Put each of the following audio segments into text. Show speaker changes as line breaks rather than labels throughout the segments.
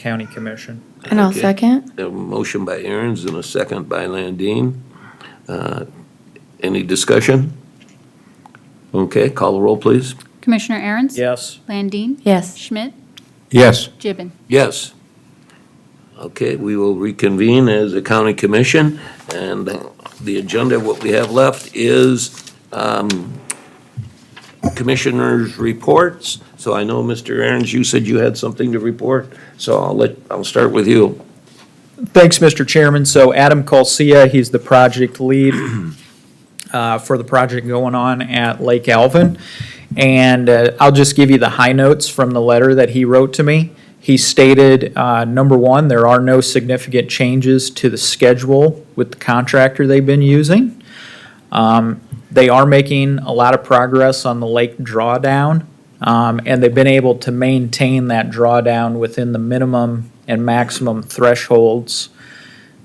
County Commission.
And I'll
Okay.
second.
A motion by Aaron's and a second by Landine. Uh, Any discussion? Okay, call the roll, please.
Commissioner Aaron's?
Yes,
Landine?
Yes.
Schmidt?
Yes.
Gibbon?
Yes. Okay, we will reconvene as a county commission, and the agenda, what we have left is um, commissioners' reports. So I know, Mr. Aaron's, you said you had something to report, so I'll let, I'll start with you.
Thanks, Mr. Chairman. So Adam Colcia, he's the project lead uh, for the project going on at Lake Alvin. And uh, I'll just give you the high notes from the letter that he wrote to me. He stated, uh, number one, there are no significant changes to the schedule with the contractor they've been using. Um, They are making a lot of progress on the lake drawdown. Um, and they've been able to maintain that drawdown within the minimum and maximum thresholds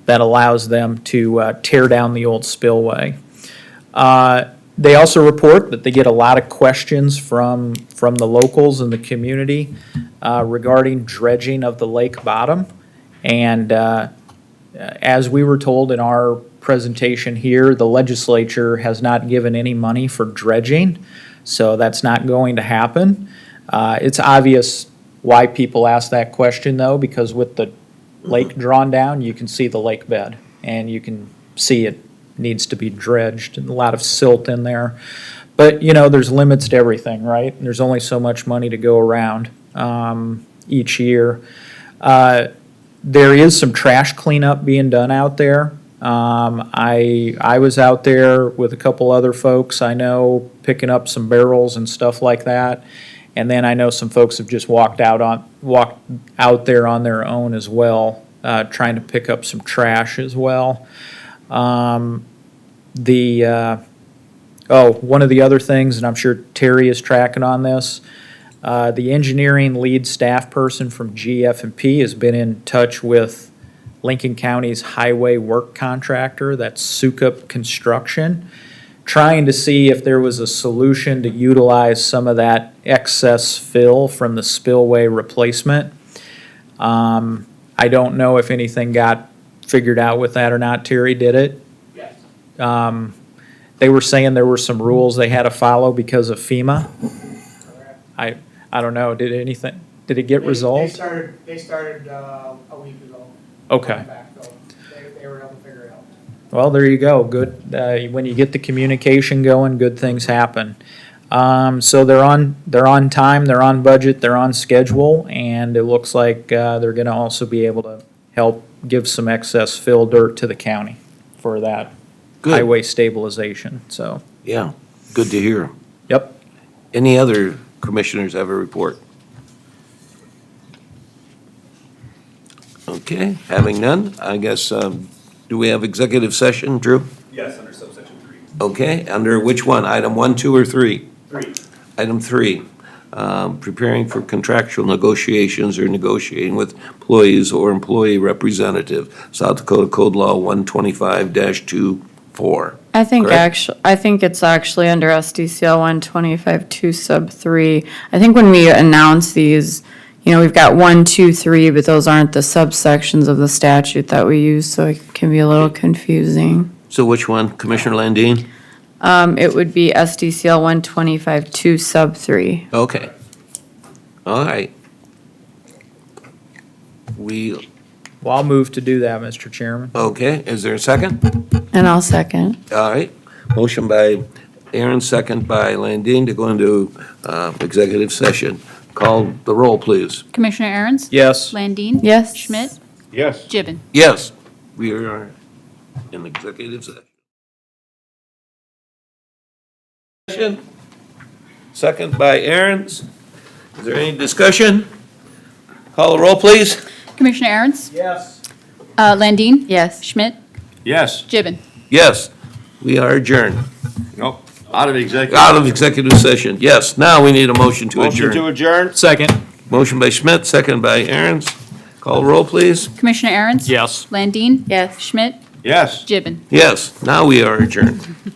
that allows them to uh, tear down the old spillway. Uh, They also report that they get a lot of questions from, from the locals and the community uh, regarding dredging of the lake bottom. And uh, as we were told in our presentation here, the legislature has not given any money for dredging, so that's not going to happen. Uh, It's obvious why people ask that question, though, because with the lake drawn down, you can see the lake bed, and you can see it needs to be dredged, and a lot of silt in there. But, you know, there's limits to everything, right? And There's only so much money to go around um, each year. Uh, there is some trash cleanup being done out there. Um, I, I was out there with a couple other folks I know picking up some barrels and stuff like that. And then I know some folks have just walked out on, walked out there on their own as well, uh, trying to pick up some trash as well. Um, the, uh, oh, one of the other things, and I'm sure Terry is tracking on this, uh, The engineering lead staff person from GF&P has been in touch with Lincoln County's highway work contractor, that's Sukup Construction, trying to see if there was a solution to utilize some of that excess fill from the spillway replacement. Um, I don't know if anything got figured out with that or not. Terry did it? Yes. Um, they were saying there were some rules they had to follow because of FEMA. I, I don't know, did anything, did it get
They- They
resolved?
started, they started uh, a week ago.
Okay,
Backfill. They, they were able to figure it out.
well, there you go, good, uh, when you get the communication going, good things happen. Um, so they're on, they're on time, they're on budget, they're on schedule, and it looks like, uh, they're gonna also be able to help give some excess fill dirt to the county for that
Good,
highway stabilization, so,
yeah, good to hear.
yep.
Any other commissioners have a report? Okay, having none, I guess, um, do we have executive session, Drew?
Yes, under subsection three.
Okay, under which one? Item one, two, or three?
Three.
Item three, um, preparing for contractual negotiations or negotiating with employees or employee representative, South Dakota Code Law 125-24.
I think
Correct.
actually, I think it's actually under SDCL one twenty-five two sub three. I think when we announce these, you know, we've got one, two, three, but those aren't the subsections of the statute that we use, so it can be a little confusing.
So which one? Commissioner Landine?
Um, it would be SDCL one twenty-five two sub three.
Okay. All right. We,
Well, I'll move to do that, Mr. Chairman.
okay, is there a second?
And I'll second.
All right. Motion by Aaron, second by Landine to go into uh, executive session. Call the roll, please.
Commissioner Aaron's?
Yes.
Landine?
Yes.
Schmidt?
Yes.
Gibbon?
Yes, we are in executive session. session. Second by Aaron's. Is there any discussion? Call the roll, please.
Commissioner Aaron's?
Yes.
Uh, Landine?
Yes.
Schmidt?
Yes.
Gibbon?
Yes, we are adjourned.
Nope. Out of executive.
Out of executive session, yes. Now we need a motion to
Motion
adjourn.
to adjourn?
Second.
Motion by Schmidt, second by Aaron's. Call the roll, please.
Commissioner Aaron's?
Yes.
Landine?
Yes.
Schmidt?
Yes.
Gibbon?
Yes, now we are adjourned.